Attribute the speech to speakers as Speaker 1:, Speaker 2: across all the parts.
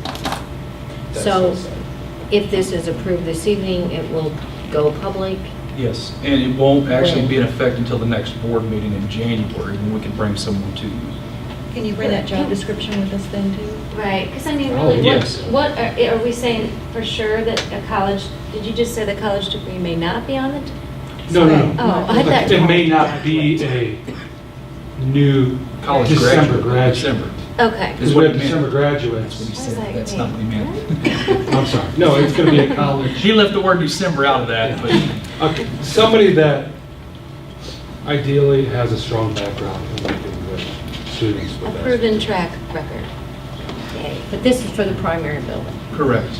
Speaker 1: That's
Speaker 2: So
Speaker 1: inside.
Speaker 2: if this is approved this evening, it will go public?
Speaker 3: Yes, and it won't actually be in
Speaker 2: When?
Speaker 3: effect until the next board meeting in January, when we can bring someone to you.
Speaker 4: Can you bring that job description with us then too?
Speaker 5: Right, because I mean,
Speaker 1: Oh,
Speaker 5: really, what,
Speaker 3: yes.
Speaker 5: what, are are we saying for sure that a college, did you just say the college degree may not be on it?
Speaker 6: No, no, no.
Speaker 5: Oh, I thought.
Speaker 6: It may not be a new
Speaker 3: College
Speaker 6: December graduate.
Speaker 3: December.
Speaker 5: Okay.
Speaker 6: Because
Speaker 3: Is what
Speaker 6: we
Speaker 3: it
Speaker 6: have December
Speaker 3: meant. That's what
Speaker 6: graduates.
Speaker 3: he
Speaker 5: I was
Speaker 3: said,
Speaker 5: like,
Speaker 3: that's
Speaker 5: wait,
Speaker 3: not what he meant.
Speaker 5: what?
Speaker 6: I'm sorry. No, it's going to be a
Speaker 3: He
Speaker 6: college.
Speaker 3: left the word December out of that, but
Speaker 6: Okay, Somebody that ideally has a strong background in working with students
Speaker 5: A
Speaker 6: with that.
Speaker 5: proven track record. Yay.
Speaker 2: But this is for the primary building.
Speaker 3: correct.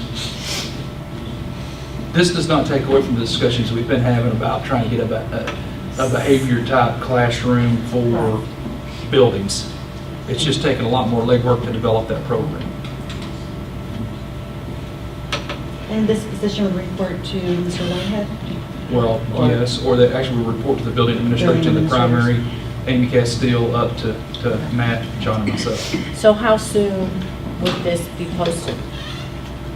Speaker 3: This does not take away from the discussions we've been having about trying to get a ba- a a behavior-type classroom for buildings. It's just taking a lot more legwork to develop that program.
Speaker 4: And this position would report to Mr. Whitehead?
Speaker 3: Well,
Speaker 4: Or-
Speaker 3: yes, or they actually report to the building administrator, to the
Speaker 4: Building administrators.
Speaker 3: primary, Amy Castile, up to, to Matt, John, and myself.
Speaker 2: So how soon would this be posted?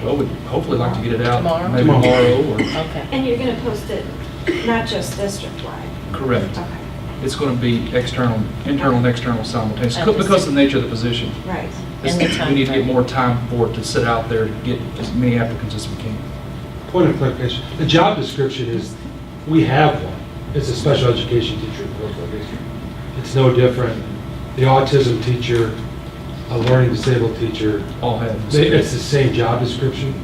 Speaker 3: Well, we'd hopefully like to get it out.
Speaker 2: Tomorrow?
Speaker 3: Maybe
Speaker 6: Tomorrow.
Speaker 3: tomorrow,
Speaker 2: Okay.
Speaker 7: And you're going to post it, not just district-wide?
Speaker 3: or, correct.
Speaker 7: Okay,
Speaker 3: It's going to be external, internal and external simultaneous,
Speaker 2: Okay.
Speaker 3: because of the nature of the position.
Speaker 7: right.
Speaker 2: And the
Speaker 3: We need to get
Speaker 2: timeframe.
Speaker 3: more time for it to sit out there, to get as many applicants as we can.
Speaker 6: Point of clarification, the job description is, we have one. It's a special education teacher in Brooklyn. It's no different. The autism teacher, a learning disabled teacher,
Speaker 3: All have.
Speaker 6: They- It's the same job description.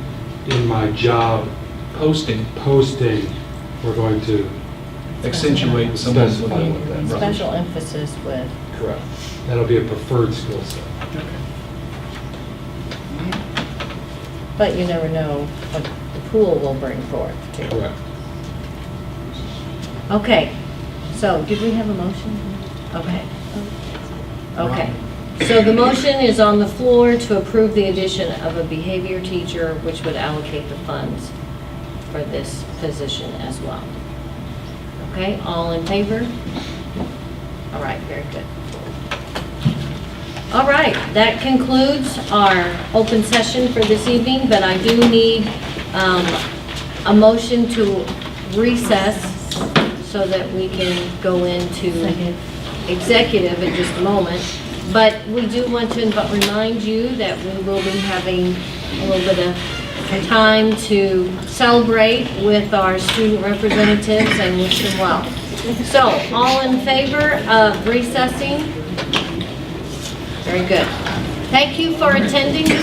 Speaker 6: In my job
Speaker 3: Posting
Speaker 6: posting, we're going to,
Speaker 3: accentuate someone's.
Speaker 6: Specify what that means.
Speaker 3: Right.
Speaker 2: Special emphasis with,
Speaker 6: correct, that'll be a preferred skill set.
Speaker 2: but you never know what the pool will bring forth. too.
Speaker 6: Correct.
Speaker 2: Okay, so did we have a motion? Okay. Okay. So the motion is on the floor to approve the addition of a behavior teacher, which would allocate the funds for this position as well. Okay, all in favor? All right, very good. All right, that concludes our open session for this evening, but I do need um, a motion to recess so that we can go into
Speaker 4: Second.
Speaker 2: executive in just a moment. But we do want to inv- remind you that we will be having a little bit of time to celebrate with our student representatives and wish them well. So, all in favor of recessing? Very good. Thank you for attending this